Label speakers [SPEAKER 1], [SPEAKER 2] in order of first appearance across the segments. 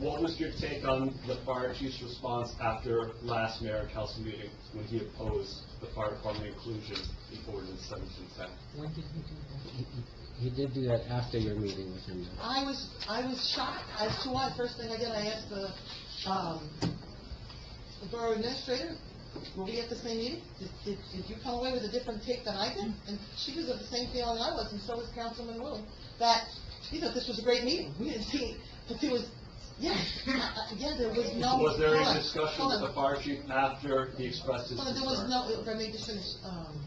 [SPEAKER 1] what was your take on the fire chief's response after last mayor council meeting when he opposed the fire department inclusion in ordinance seventeen ten?
[SPEAKER 2] When did he do that?
[SPEAKER 3] He did do that after your meeting with him, though.
[SPEAKER 2] I was, I was shocked as to why. First thing I did, I asked the, um, the borough administrator, were we at the same meeting? Did, did, did you come away with a different take than I did? And she was of the same feeling I was, and so was Councilman Wu, that, you know, this was a great meeting. We didn't see, but there was, yeah, I- I- yeah, there was no.
[SPEAKER 1] Was there
[SPEAKER 2] hold
[SPEAKER 1] any
[SPEAKER 2] on,
[SPEAKER 1] discussion
[SPEAKER 2] hold
[SPEAKER 1] with
[SPEAKER 2] on.
[SPEAKER 1] the fire chief after he expressed his
[SPEAKER 2] Well, there was
[SPEAKER 1] concern?
[SPEAKER 2] no, if I may just finish, um,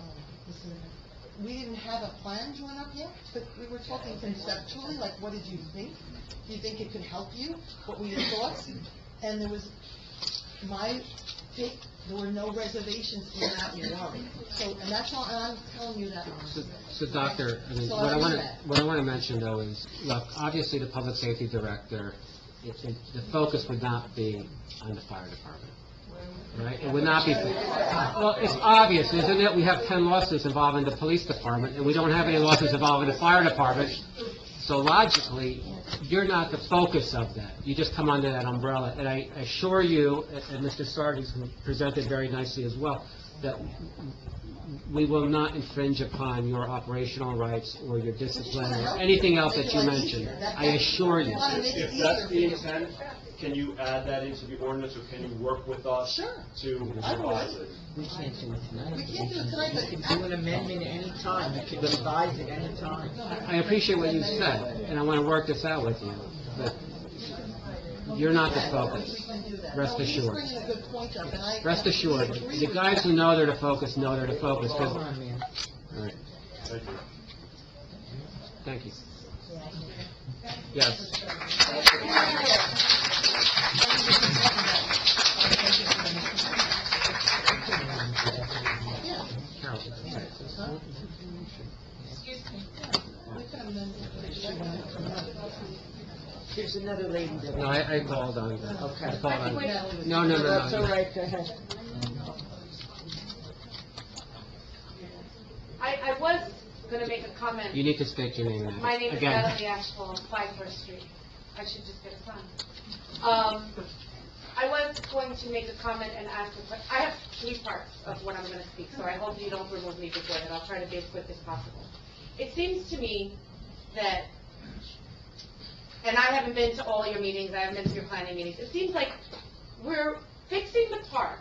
[SPEAKER 2] um, Mr. Mayor. we didn't have a plan drawn up yet, but we were talking conceptually, like, what did you think? Do you think it could help you? What were your thoughts? And there was, my take, there were no reservations in that regard. So, and that's all, and I'm telling you that.
[SPEAKER 3] So, so Doctor, I mean,
[SPEAKER 2] So
[SPEAKER 3] what I
[SPEAKER 2] mean
[SPEAKER 3] want
[SPEAKER 2] that.
[SPEAKER 3] to, what I want to mention, though, is, look, obviously, the Public Safety Director, it- it- the focus would not be on the fire department, right? It would not be, well, it's obvious, isn't it? We have 10 lawsuits involving the police department, and we don't have any lawsuits involving the fire department. So logically, you're not the focus of that. You just come under that umbrella. And I assure you, and- and Mr. Sardi presented very nicely as well, that we will not infringe upon your operational rights or your discipline or anything else that you mentioned. I assure you.
[SPEAKER 2] Wanna make it
[SPEAKER 1] If that's the
[SPEAKER 2] easier for
[SPEAKER 1] intent, can you add that into the ordinance, or can you work with us
[SPEAKER 2] Sure.
[SPEAKER 1] to
[SPEAKER 2] I will.
[SPEAKER 1] revise it?
[SPEAKER 3] We can't do it
[SPEAKER 2] We can't do it tonight, but.
[SPEAKER 4] You can do an amendment at any time, you can revise at any time.
[SPEAKER 3] I appreciate what you said, and I want to work this out with you, but you're not the focus. Rest assured.
[SPEAKER 2] No, he's bringing a good point up, and I.
[SPEAKER 3] Rest
[SPEAKER 2] I
[SPEAKER 3] assured,
[SPEAKER 2] agree
[SPEAKER 3] the
[SPEAKER 2] with
[SPEAKER 3] guys
[SPEAKER 2] that.
[SPEAKER 3] who know they're the focus know they're the focus,
[SPEAKER 4] Come
[SPEAKER 3] 'cause-
[SPEAKER 4] on, man.
[SPEAKER 3] all right,
[SPEAKER 1] Thank you.
[SPEAKER 3] thank you. Yes.
[SPEAKER 2] Yeah.
[SPEAKER 3] Carol.
[SPEAKER 2] Huh? We could amend it.
[SPEAKER 4] There's another lady that...
[SPEAKER 3] No, I, I called on that.
[SPEAKER 4] Okay.
[SPEAKER 3] I called on that.
[SPEAKER 2] Natalie was-
[SPEAKER 3] No, no, no, no.
[SPEAKER 4] That's all right, go ahead.
[SPEAKER 5] I, I was gonna make a comment.
[SPEAKER 3] You need to state your name.
[SPEAKER 5] My name is uh,
[SPEAKER 3] Again.
[SPEAKER 5] Natalie Ashwell, five First Street. I should just get a sign. Um, I was going to make a comment and ask a question. I have three parts of what I'm gonna speak, so I hope you don't remove me before that. I'll try to be as quick as possible. It seems to me that, and I haven't been to all your meetings, I haven't been to your planning meetings, it seems like we're fixing the park,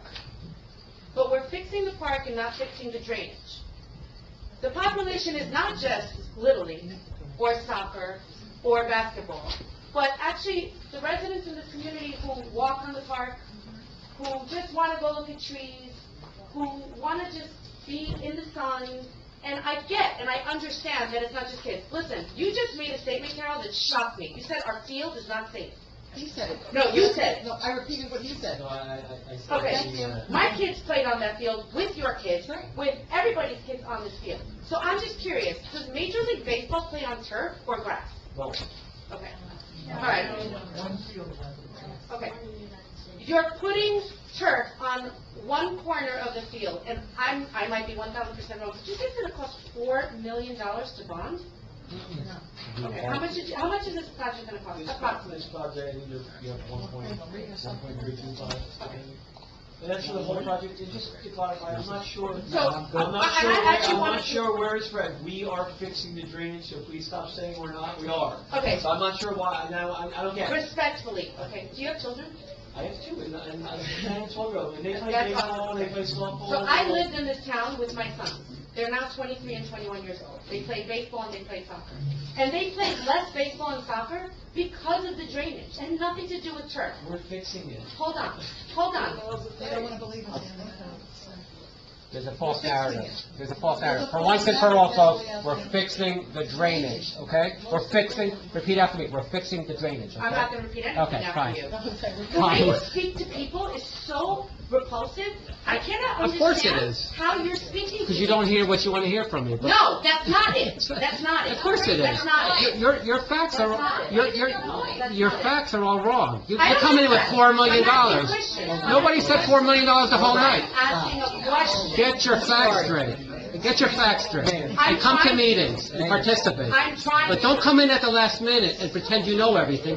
[SPEAKER 5] but we're fixing the park and not fixing the drainage. The population is not just Little League or soccer or basketball, but actually, the residents in this community who walk on the park, who just want to go look at trees, who want to just be in the sun, and I get and I understand that it's not just kids. Listen, you just made a statement, Carol, that shocked me. You said our field is not safe.
[SPEAKER 2] He said it.
[SPEAKER 5] No, you said it.
[SPEAKER 2] No, I repeated what you said. Thank you.
[SPEAKER 6] uh,
[SPEAKER 5] Okay, my kids played on that field with your kids,
[SPEAKER 2] Right.
[SPEAKER 5] with everybody's kids on this field. So I'm just curious, does Major League Baseball play on turf or grass?
[SPEAKER 3] Well-
[SPEAKER 5] Okay, all right. Okay. You're putting turf on one corner of the field, and I'm, I might be one thousand percent wrong, but you think it's gonna cost four million dollars to bond?
[SPEAKER 2] No.
[SPEAKER 3] Mm-hmm.
[SPEAKER 5] Okay, how much is, how much is this project gonna cost, approximately?
[SPEAKER 6] project, you have- you have one point,
[SPEAKER 2] Three or
[SPEAKER 6] one
[SPEAKER 2] something.
[SPEAKER 6] point three two five. And that's for the whole project, and just to clarify, I'm not sure, I'm
[SPEAKER 5] So, I,
[SPEAKER 6] not
[SPEAKER 5] I
[SPEAKER 6] sure,
[SPEAKER 5] I actually
[SPEAKER 6] I'm
[SPEAKER 5] wanna.
[SPEAKER 6] not sure where it's read. We are fixing the drainage, so please stop saying we're not, we are.
[SPEAKER 5] Okay,
[SPEAKER 6] So I'm not sure why, now, I, I don't get it.
[SPEAKER 5] respectfully, okay, do you have children?
[SPEAKER 6] I have two, and, and, and it's one road, and they play
[SPEAKER 5] That's
[SPEAKER 6] baseball,
[SPEAKER 5] awesome.
[SPEAKER 6] and they play softball.
[SPEAKER 5] So I
[SPEAKER 6] and-
[SPEAKER 5] lived in this town with my sons. They're now 23 and 21 years old. They play baseball and they play soccer. And they play less baseball and soccer because of the drainage and nothing to do with turf.
[SPEAKER 6] We're fixing it.
[SPEAKER 5] Hold on, hold on.
[SPEAKER 2] They don't wanna believe us, Andy.
[SPEAKER 3] There's a false
[SPEAKER 2] We're fixing
[SPEAKER 3] narrative. There's a false
[SPEAKER 2] There's a
[SPEAKER 3] narrative. For
[SPEAKER 2] false
[SPEAKER 3] once and for all,
[SPEAKER 2] narrative.
[SPEAKER 3] folks, we're fixing the drainage, okay? We're fixing, repeat after me, we're fixing the drainage,
[SPEAKER 5] I'm
[SPEAKER 3] okay?
[SPEAKER 5] not going to repeat anything
[SPEAKER 3] Okay,
[SPEAKER 5] now
[SPEAKER 3] fine.
[SPEAKER 5] for you.
[SPEAKER 2] Okay, we're
[SPEAKER 5] The way you
[SPEAKER 3] Fine.
[SPEAKER 5] speak to people is so repulsive. I cannot
[SPEAKER 3] Of course it
[SPEAKER 5] understand
[SPEAKER 3] is.
[SPEAKER 5] how you're speaking to
[SPEAKER 3] Because you don't
[SPEAKER 5] me.
[SPEAKER 3] hear what you want to hear from me, but...
[SPEAKER 5] No, that's not it. That's not it.
[SPEAKER 3] Of course it is.
[SPEAKER 5] That's not it.
[SPEAKER 3] Your, your facts
[SPEAKER 5] That's not
[SPEAKER 3] are,
[SPEAKER 5] it.
[SPEAKER 3] your, your,
[SPEAKER 5] That's
[SPEAKER 3] your
[SPEAKER 5] not it.
[SPEAKER 3] facts are all wrong. You
[SPEAKER 5] I
[SPEAKER 3] you
[SPEAKER 5] don't
[SPEAKER 3] come in with
[SPEAKER 5] think so.
[SPEAKER 3] four million
[SPEAKER 5] I'm asking a
[SPEAKER 3] dollars.
[SPEAKER 5] question.
[SPEAKER 3] Nobody said four million dollars the whole
[SPEAKER 5] I'm
[SPEAKER 3] night.
[SPEAKER 5] asking a question.
[SPEAKER 3] Get your facts straight. Get your facts straight.
[SPEAKER 5] I'm
[SPEAKER 3] And come to
[SPEAKER 5] trying-
[SPEAKER 3] meetings and participate.
[SPEAKER 5] I'm trying.
[SPEAKER 3] But
[SPEAKER 5] to-
[SPEAKER 3] don't come in at the last minute and pretend you know everything,